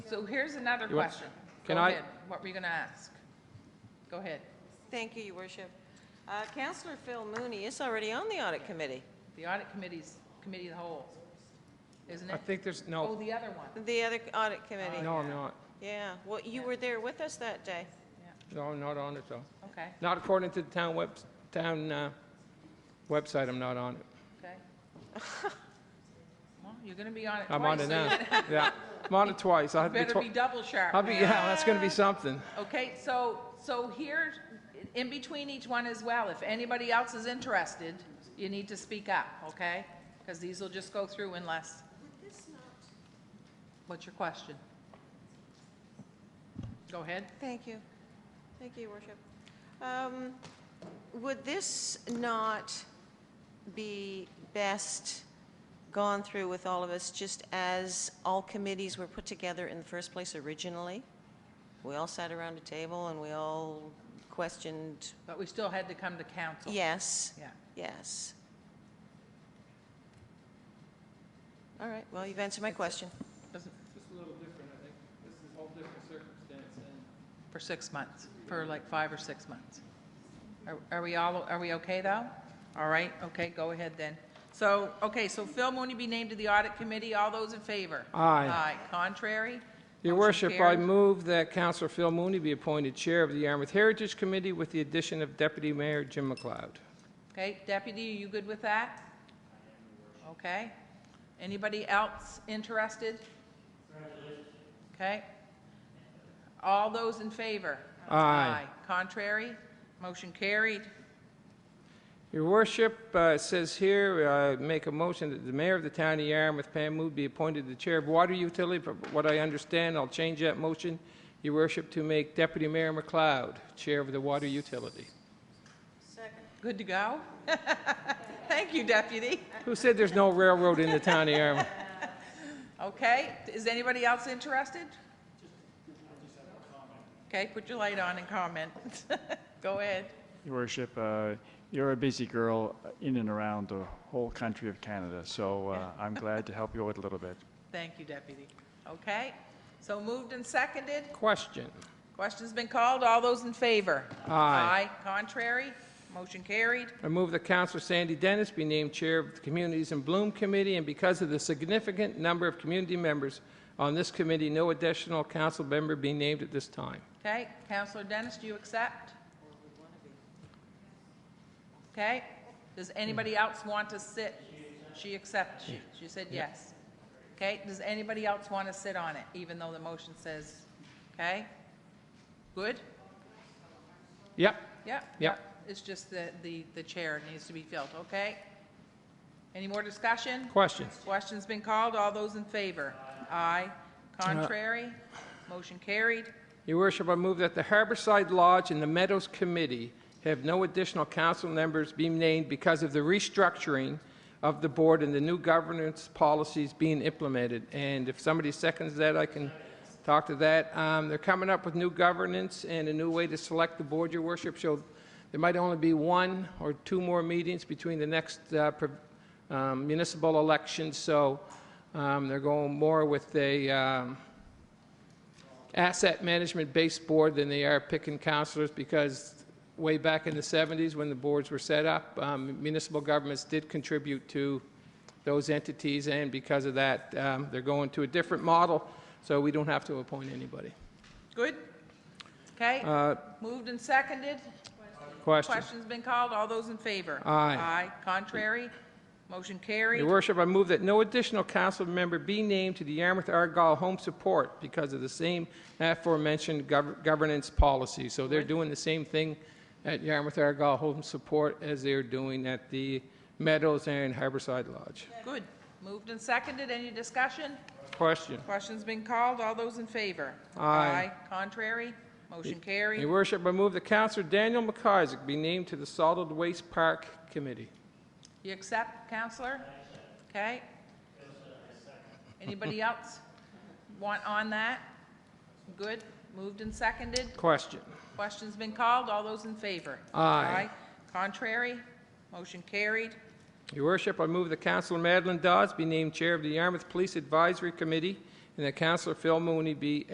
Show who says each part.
Speaker 1: So here's another
Speaker 2: You want-
Speaker 1: question. Go
Speaker 2: can I-
Speaker 1: ahead. What were you going to ask? Go ahead.
Speaker 3: Thank you, Your Worship. Uh, Counselor Phil Mooney is already on the audit committee,
Speaker 1: The audit committee's, committee of the whole, isn't it?
Speaker 2: I think there's,
Speaker 1: Oh,
Speaker 2: no,
Speaker 1: the other one.
Speaker 3: the other audit committee.
Speaker 2: no, I'm not.
Speaker 3: Yeah, well, you were there with us that day.
Speaker 2: No, I'm not on it, though.
Speaker 1: Okay,
Speaker 2: Not according to the town web, town uh, website, I'm not on it.
Speaker 1: okay. Well, you're going to be on it twice.
Speaker 2: I'm on it
Speaker 1: so
Speaker 2: now.
Speaker 1: you
Speaker 2: Yeah, I'm on it twice. I'll have to be,
Speaker 1: Better be
Speaker 2: twi-
Speaker 1: double
Speaker 2: I'll
Speaker 1: sharp.
Speaker 2: be, yeah, that's going to be something.
Speaker 1: Okay, so, so here, in between each one as well, if anybody else is interested, you need to speak up, okay? Because these will just go through unless. What's your question? Go ahead.
Speaker 3: Thank you. Thank you, Your Worship. Um, Would this not be best gone through with all of us, just as all committees were put together in the first place originally? We all sat around a table and we all questioned,
Speaker 1: But we still had to come to council.
Speaker 3: yes,
Speaker 1: Yeah.
Speaker 3: yes. All right, well, you've answered my question.
Speaker 1: Doesn't-
Speaker 2: Just a little different, I think. This is a whole different circumstance, and
Speaker 1: For six months, for like five or six months. Are- Are we all, are we okay, though? All right, okay, go ahead then. So, okay, so Phil Mooney be named to the audit committee. All those in favor?
Speaker 2: Aye.
Speaker 1: Aye. Contrary?
Speaker 2: Your
Speaker 1: Motion
Speaker 2: worship, I
Speaker 1: carried.
Speaker 2: move that Councilor Phil Mooney be appointed Chair of the Yarmouth Heritage Committee with the addition of Deputy Mayor Jim McLeod.
Speaker 1: Okay, deputy, are you good with that? Okay. Anybody else interested? Okay. All those in favor?
Speaker 2: Aye.
Speaker 1: Contrary? Motion carried.
Speaker 2: Your worship, uh, it says here, uh, make a motion that the mayor of the town of Yarmouth, Pam Mood, be appointed the chair of water utility. From what I understand, I'll change that motion, your worship, to make Deputy Mayor McLeod chair of the water utility.
Speaker 1: Good to go? Thank you, deputy.
Speaker 2: Who said there's no railroad in the town of Yarmouth?
Speaker 1: Okay, is anybody else interested? Okay, put your light on and comment. Go ahead.
Speaker 4: Your Worship, uh, you're a busy girl in and around the whole country of Canada, so uh, I'm glad to help you out a little bit.
Speaker 1: Thank you, deputy. Okay, so moved and seconded.
Speaker 2: Question.
Speaker 1: Question's been called. All those in favor?
Speaker 2: Aye.
Speaker 1: Contrary? Motion carried.
Speaker 2: I move that Councilor Sandy Dennis be named Chair of the Communities in Bloom Committee, and because of the significant number of community members on this committee, no additional council member be named at this time.
Speaker 1: Okay, Counselor Dennis, do you accept? Okay, does anybody else want to sit? She accepts, she, she said yes. Okay, does anybody else want to sit on it, even though the motion says, okay? Good?
Speaker 2: Yep,
Speaker 1: Yep.
Speaker 2: yep.
Speaker 1: It's just the, the, the chair needs to be filled, okay? Any more discussion?
Speaker 2: Question.
Speaker 1: Question's been called, all those in favor? Aye. Contrary? Motion carried.
Speaker 2: Your worship, I move that the Harborside Lodge and the Meadows Committee have no additional council members be named because of the restructuring of the board and the new governance policies being implemented. And if somebody seconds that, I can talk to that. Um, They're coming up with new governance and a new way to select the board, your worship. So there might only be one or two more meetings between the next uh, pro- um, municipal election. So um, they're going more with a um, asset management based board than they are picking counselors because way back in the 70s when the boards were set up, um, municipal governments did contribute to those entities and because of that, um, they're going to a different model, so we don't have to appoint anybody.
Speaker 1: Good? Okay,
Speaker 2: Uh,
Speaker 1: moved and seconded.
Speaker 2: Question.
Speaker 1: Question's been called. All those in favor?
Speaker 2: Aye.
Speaker 1: Aye. Contrary? Motion
Speaker 2: Your
Speaker 1: carried.
Speaker 2: worship, I move that no additional council member be named to the Yarmouth Argyle Home Support because of the same aforementioned gov- governance policy. So they're doing the same thing at Yarmouth Argyle Home Support as they're doing at the Meadows and Harborside Lodge.
Speaker 1: Good. Moved and seconded. Any discussion?
Speaker 2: Question.
Speaker 1: Question's been called. All those in favor?
Speaker 2: Aye.
Speaker 1: Contrary? Motion
Speaker 2: Your
Speaker 1: carried.
Speaker 2: worship, I move that Councilor Daniel McIsaac be named to the Solid Waste Park Committee.
Speaker 1: You accept, Counselor? Okay. Anybody else want on that? Good. Moved and seconded.
Speaker 2: Question.
Speaker 1: Question's been called. All those in favor?
Speaker 2: Aye.
Speaker 1: Contrary? Motion carried.
Speaker 2: Your worship, I move that Councilor Madeline Dodds be named Chair of the Yarmouth Police Advisory Committee and that Councillor Phil Mooney be